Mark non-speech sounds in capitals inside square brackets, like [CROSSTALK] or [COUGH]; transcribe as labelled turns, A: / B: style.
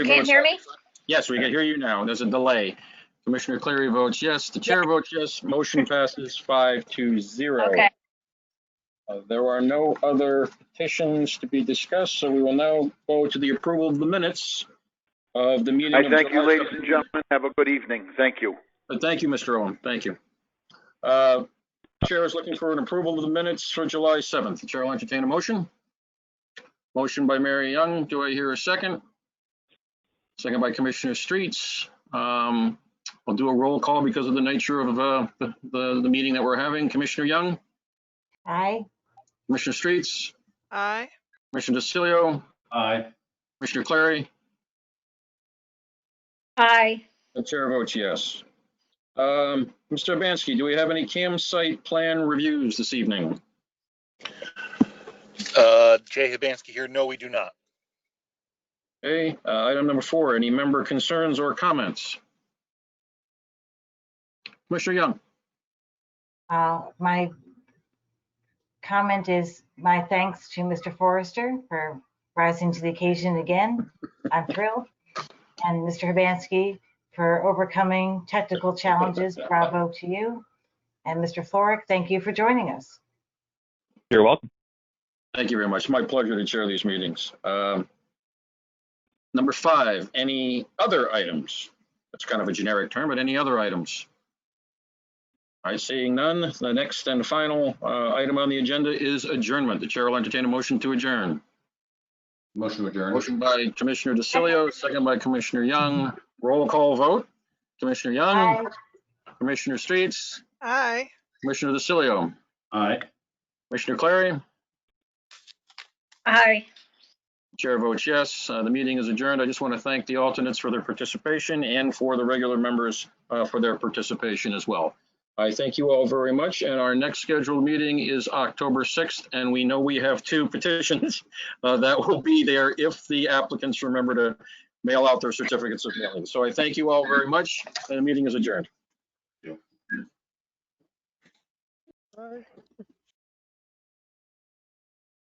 A: You
B: Can't hear me?
A: Yes, we can hear you now. There's a delay. Commissioner Cleary votes yes. The chair votes yes. Motion passes five to zero.
B: Okay,
A: Uh, There are no other petitions to be discussed, so we will now go to the approval of the minutes of the meeting.
C: I
A: of
C: thank you,
A: July
C: ladies and gentlemen. Have a good evening. Thank you.
A: Uh, Thank you, Mr. Owen. Thank you. Uh, Chair is looking for an approval of the minutes for July 7th. The Chair will entertain a motion. Motion by Mary Young. Do I hear a second? Second by Commissioner Streets. Um, I'll do a roll call because of the nature of uh, the, the the meeting that we're having. Commissioner Young,
D: Aye.
A: Commissioner Streets,
E: Aye.
A: Commissioner DeCilio,
F: Aye.
A: Commissioner Clary.
B: aye.
A: The chair votes yes. Um, Mr. Bansky, do we have any campsite plan reviews this evening?
G: Uh, Jay Hibansky here. No, we do not.
A: Okay, uh, item number four, any member concerns or comments? Commissioner Young,
D: Uh, My comment is my thanks to Mr. Forrester for rising to the occasion again. I'm thrilled. And Mr. Hibansky for overcoming technical challenges. Bravo to you. And Mr. Florrick, thank you for joining us.
F: You're welcome.
A: thank you very much. My pleasure to chair these meetings. Um, Number five, any other items? That's kind of a generic term, but any other items? All right, seeing none, the next and final uh, item on the agenda is adjournment. The chair will entertain a motion to adjourn.
F: Motion to adjourn.
A: Motion by Commissioner DeCilio, second by Commissioner Young. Roll call vote. Commissioner Young,
D: Aye.
A: Commissioner Streets,
E: Aye.
A: Commissioner DeCilio,
F: Aye.
A: Commissioner Clary,
B: Aye.
A: Chair votes yes. Uh, The meeting is adjourned. I just want to thank the alternates for their participation and for the regular members uh, for their participation as well. I thank you all very much, and our next scheduled meeting is October 6th, and we know we have two petitions [LAUGHS] uh, that will be there if the applicants remember to mail out their certificates of mailing. So I thank you all very much, and the meeting is adjourned.
E: Aye.